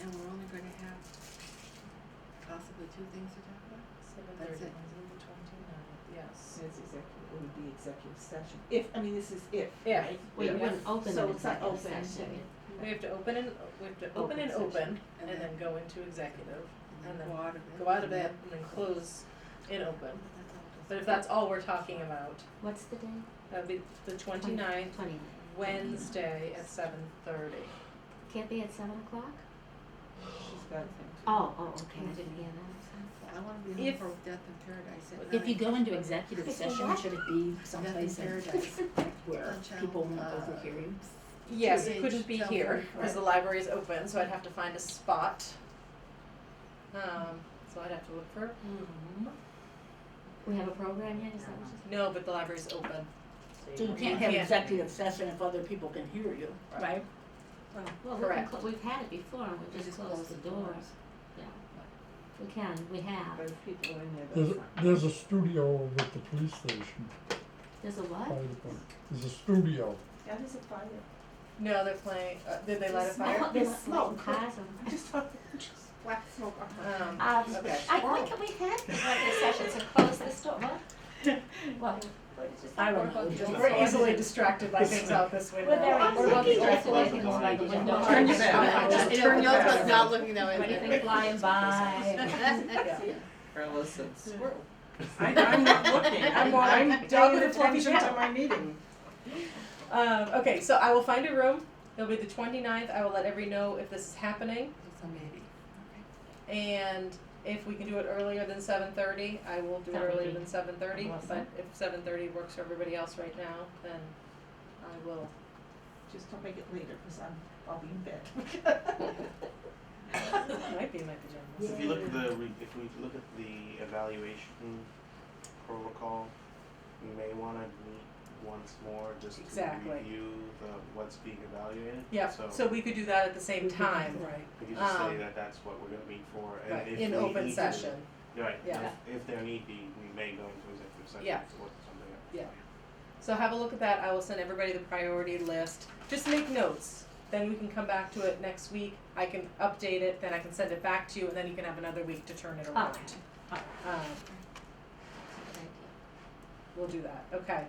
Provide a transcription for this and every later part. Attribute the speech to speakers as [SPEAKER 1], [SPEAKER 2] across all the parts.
[SPEAKER 1] and we're only gonna have possibly two things to talk about?
[SPEAKER 2] Seven
[SPEAKER 1] That's
[SPEAKER 2] thirty,
[SPEAKER 1] it.
[SPEAKER 2] the twenty-ninth, yes.
[SPEAKER 3] It's executive, it would be executive session, if, I mean, this is if,
[SPEAKER 2] Yeah.
[SPEAKER 3] right?
[SPEAKER 4] Well, you
[SPEAKER 2] Yeah.
[SPEAKER 4] wouldn't open
[SPEAKER 3] So
[SPEAKER 4] an
[SPEAKER 3] it's not
[SPEAKER 4] executive
[SPEAKER 3] open,
[SPEAKER 4] session.
[SPEAKER 2] We have to open and, we have to open
[SPEAKER 4] Open
[SPEAKER 2] and
[SPEAKER 4] session.
[SPEAKER 2] open,
[SPEAKER 1] And
[SPEAKER 2] and then
[SPEAKER 1] then-
[SPEAKER 2] go into executive,
[SPEAKER 1] And
[SPEAKER 2] and
[SPEAKER 1] then
[SPEAKER 2] then
[SPEAKER 1] go out of it.
[SPEAKER 2] go out of that, and then close in open. But if that's all we're talking about,
[SPEAKER 4] What's the day?
[SPEAKER 2] that'd be the twenty-ninth,
[SPEAKER 4] Twenty.
[SPEAKER 2] Wednesday at seven thirty.
[SPEAKER 4] Can't be at seven o'clock?
[SPEAKER 3] She's got a thing to-
[SPEAKER 4] Oh, oh, okay, I didn't hear that.
[SPEAKER 1] I wanna be home
[SPEAKER 2] If-
[SPEAKER 1] for Death in Paradise at
[SPEAKER 5] If you
[SPEAKER 1] nine.
[SPEAKER 5] go into
[SPEAKER 4] If
[SPEAKER 5] executive
[SPEAKER 4] you
[SPEAKER 5] session,
[SPEAKER 4] what?
[SPEAKER 5] should it be
[SPEAKER 1] Death in
[SPEAKER 5] someplace in-
[SPEAKER 1] Paradise.
[SPEAKER 5] where
[SPEAKER 1] Some
[SPEAKER 5] people
[SPEAKER 1] channel,
[SPEAKER 5] won't
[SPEAKER 1] uh,
[SPEAKER 5] overhear you?
[SPEAKER 2] Yes,
[SPEAKER 1] Two
[SPEAKER 2] it
[SPEAKER 1] each,
[SPEAKER 2] couldn't be
[SPEAKER 1] tell
[SPEAKER 2] here,
[SPEAKER 1] them,
[SPEAKER 2] because the library is open, so I'd have to find a spot. Um, so I'd have to look for a
[SPEAKER 3] Mm-hmm.
[SPEAKER 2] room.
[SPEAKER 4] We have a program yet, is that what you
[SPEAKER 2] No, but the library's open.
[SPEAKER 5] So you can't have executive session if other people can hear you,
[SPEAKER 4] said?
[SPEAKER 5] right?
[SPEAKER 4] Well, we can,
[SPEAKER 2] Correct.
[SPEAKER 4] clo- we've had it before, and we
[SPEAKER 1] We
[SPEAKER 4] just closed the doors. Yeah. We can, we
[SPEAKER 3] But
[SPEAKER 4] have.
[SPEAKER 3] if people are in there,
[SPEAKER 6] There's,
[SPEAKER 3] that's fine.
[SPEAKER 6] there's a studio over at the police station
[SPEAKER 4] There's a
[SPEAKER 6] by
[SPEAKER 4] what?
[SPEAKER 6] the park. There's a studio.
[SPEAKER 3] That is a fire.
[SPEAKER 2] No, they're playing, uh, did they light a
[SPEAKER 3] Fire?
[SPEAKER 4] I
[SPEAKER 2] fire?
[SPEAKER 4] thought there's
[SPEAKER 3] There's
[SPEAKER 4] smoke.
[SPEAKER 3] smoke.
[SPEAKER 4] Cars on.
[SPEAKER 3] I just thought, just black smoke up my-
[SPEAKER 2] Um,
[SPEAKER 4] Um,
[SPEAKER 2] okay.
[SPEAKER 4] I think we had executive session, so close this door, what? What? What did you say?
[SPEAKER 5] I don't know.
[SPEAKER 4] Just-
[SPEAKER 2] We're easily distracted by things out this window.
[SPEAKER 4] We're very,
[SPEAKER 3] I'm
[SPEAKER 4] we're both
[SPEAKER 3] thinking
[SPEAKER 4] distracted by
[SPEAKER 7] that's
[SPEAKER 4] things
[SPEAKER 7] why
[SPEAKER 4] by the
[SPEAKER 7] the
[SPEAKER 4] window.
[SPEAKER 7] window-
[SPEAKER 2] Turn
[SPEAKER 4] Turn
[SPEAKER 2] your back.
[SPEAKER 4] yours
[SPEAKER 2] Just
[SPEAKER 1] You know,
[SPEAKER 2] turn your
[SPEAKER 1] Neil's
[SPEAKER 2] back.
[SPEAKER 1] not looking that way.
[SPEAKER 4] Anything flying by.
[SPEAKER 2] Yeah.
[SPEAKER 3] Carlos and squirrel.
[SPEAKER 8] I, I'm not looking. I'm, I'm
[SPEAKER 2] Dog
[SPEAKER 8] drawing
[SPEAKER 2] with a fluffy
[SPEAKER 8] attention
[SPEAKER 2] tail.
[SPEAKER 8] to my meeting.
[SPEAKER 2] Um, okay, so I will find a room. It'll be the 29th. I will let everybody know if this is happening,
[SPEAKER 1] It's a maybe.
[SPEAKER 2] and if we can do it earlier than 7:30, I will do it
[SPEAKER 4] That would
[SPEAKER 2] earlier
[SPEAKER 4] be
[SPEAKER 2] than 7:30. But
[SPEAKER 4] awesome.
[SPEAKER 2] if 7:30 works for everybody else right now, then I will.
[SPEAKER 3] Just don't make it later, cause I'm, I'll be in bed.
[SPEAKER 2] might be my pajamas.
[SPEAKER 7] So if you look at the, re- if we look at the evaluation protocol, we may wanna meet once more just to
[SPEAKER 2] Exactly.
[SPEAKER 7] review the, what's being evaluated.
[SPEAKER 2] Yeah.
[SPEAKER 7] So
[SPEAKER 2] So we could do that at the same time,
[SPEAKER 3] Right.
[SPEAKER 7] we can just say
[SPEAKER 2] um,
[SPEAKER 7] that that's what we're gonna meet for
[SPEAKER 2] right,
[SPEAKER 7] and if we need to.
[SPEAKER 2] in open session.
[SPEAKER 7] Right,
[SPEAKER 2] Yeah.
[SPEAKER 7] if, if there need be, we may go into executive session
[SPEAKER 2] Yeah.
[SPEAKER 7] to look at something up.
[SPEAKER 2] Yeah. So have a look at that. I will send everybody the priority list. Just make notes. Then we can come back to it next week. I can update it, then I can send it back to you, and then you can have another week to turn it around. Um, we'll do that. Okay.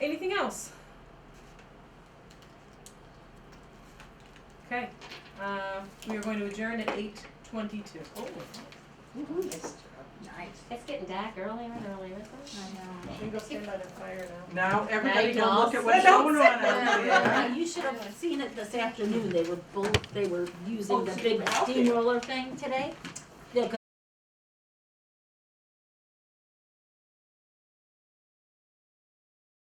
[SPEAKER 2] Anything else? Okay. Um, we are going to adjourn at eight twenty-two.
[SPEAKER 3] Oh,
[SPEAKER 5] Nice.
[SPEAKER 4] It's getting dark earlier and earlier, isn't it?
[SPEAKER 2] We go stand by the fire now.
[SPEAKER 8] Now everybody
[SPEAKER 5] Night,
[SPEAKER 8] go look at
[SPEAKER 5] dolls.
[SPEAKER 8] what's
[SPEAKER 2] Don't
[SPEAKER 8] going on
[SPEAKER 2] say
[SPEAKER 8] out
[SPEAKER 2] that.
[SPEAKER 8] there.
[SPEAKER 5] Now, you should have seen it this afternoon, Oh, they were both, they were using the big
[SPEAKER 3] out there.
[SPEAKER 5] steamroller thing today.